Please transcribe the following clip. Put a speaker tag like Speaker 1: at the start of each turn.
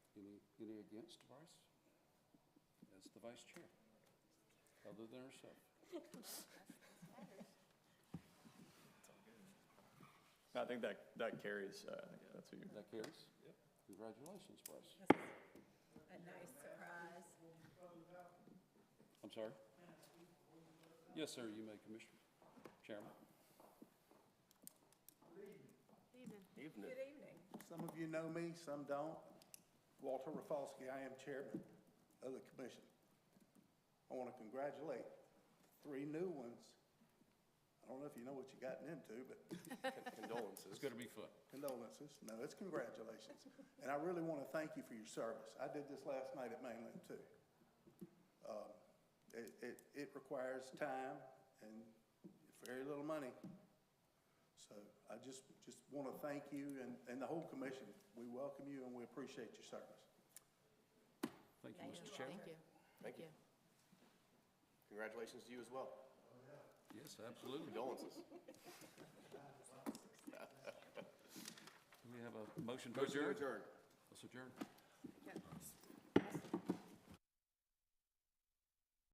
Speaker 1: Any against, Vice? That's the Vice Chair, other than herself.
Speaker 2: I think that, that carries, uh, I think that's
Speaker 1: That
Speaker 2: what you're,
Speaker 1: carries? Yep. Congratulations, Bryce.
Speaker 3: A nice surprise.
Speaker 1: I'm sorry? Yes, sir, you may, Commissioner, Chairman.
Speaker 3: Evening.
Speaker 4: Evening.
Speaker 3: Good evening.
Speaker 5: Some of you know me, some don't. Walter Rafalski, I am chairman of the commission. I want to congratulate three new ones. I don't know if you know what you gotten into, but
Speaker 4: Condolences.
Speaker 1: It's gonna be fun.
Speaker 5: condolences. No, it's congratulations. And I really want to thank you for your service. I did this last night at Mainland too. Um, It, it, it requires time and very little money. So I just, just want to thank you and, and the whole commission. We welcome you and we appreciate your service.
Speaker 1: Thank you, Mr. Chairman.
Speaker 6: Thank
Speaker 4: Thank you.
Speaker 6: you.
Speaker 4: Congratulations to you as well.
Speaker 1: Yes, absolutely.
Speaker 4: Condolences.
Speaker 1: Do we have a motion to
Speaker 4: Motion to
Speaker 1: adjourn?
Speaker 4: adjourn.
Speaker 1: Let's adjourn.
Speaker 3: Yeah.